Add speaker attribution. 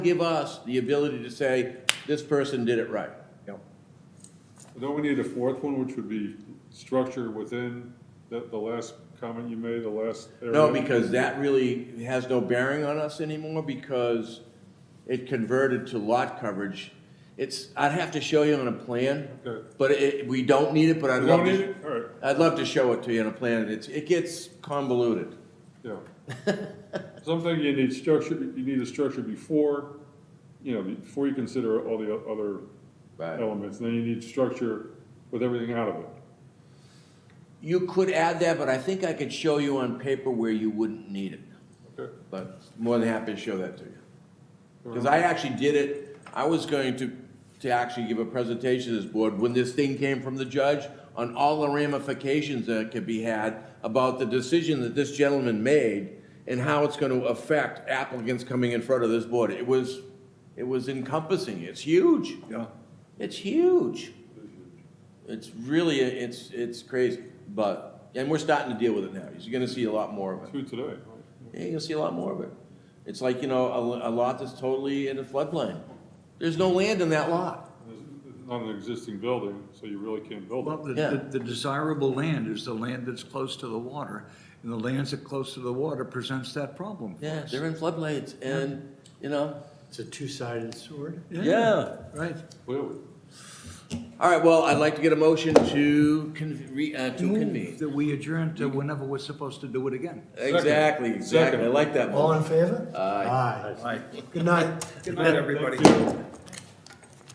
Speaker 1: give us the ability to say, this person did it right.
Speaker 2: Don't we need a fourth one, which would be structure within the, the last comment you made, the last area?
Speaker 1: No, because that really has no bearing on us anymore because it converted to lot coverage. It's, I'd have to show you on a plan,
Speaker 2: Okay.
Speaker 1: but it, we don't need it, but I'd
Speaker 2: We
Speaker 1: love
Speaker 2: don't need it?
Speaker 1: to.
Speaker 2: All right,
Speaker 1: I'd love to show it to you on a plan. It's, it gets convoluted.
Speaker 2: yeah. Something you need structure, you need a structure before, you know, before you consider all the o- other elements. Then you need structure with everything out of it.
Speaker 1: You could add that, but I think I could show you on paper where you wouldn't need it.
Speaker 2: Okay.
Speaker 1: But more than happy to show that to you.
Speaker 2: Fair
Speaker 1: Because I actually did it, I was going to, to actually give a presentation to this board when this thing came from the judge on all the ramifications that could be had about the decision that this gentleman made and how it's gonna affect applicants coming in front of this board. It was, it was encompassing, it's huge.
Speaker 2: Yeah.
Speaker 1: It's huge. It's really, it's, it's crazy, but, and we're starting to deal with it now. You're gonna see a lot more of it.
Speaker 2: Two today. right?
Speaker 1: Yeah, you'll see a lot more of it. It's like, you know, a, a lot that's totally in a floodplain. There's no land in that lot.
Speaker 2: There's Not an existing building, so you really can't build
Speaker 3: Well,
Speaker 2: it.
Speaker 3: the-
Speaker 1: Yeah.
Speaker 3: the, the desirable land is the land that's close to the water, and the lands that close to the water presents that problem. for
Speaker 1: Yeah,
Speaker 3: us.
Speaker 1: they're in floodplains and, you know,
Speaker 4: It's a two-sided sword.
Speaker 1: yeah.
Speaker 3: Right.
Speaker 2: Clearly.
Speaker 1: All right, well, I'd like to get a motion to con, re, uh, to
Speaker 3: Move
Speaker 1: convene.
Speaker 3: That we adjourn to whenever we're supposed to do it again.
Speaker 1: Exactly, exactly. I
Speaker 2: Second.
Speaker 1: like that
Speaker 4: All
Speaker 1: motion.
Speaker 4: in favor?
Speaker 1: Aye.
Speaker 4: Aye. Good night.
Speaker 3: Good night,
Speaker 2: Thank you.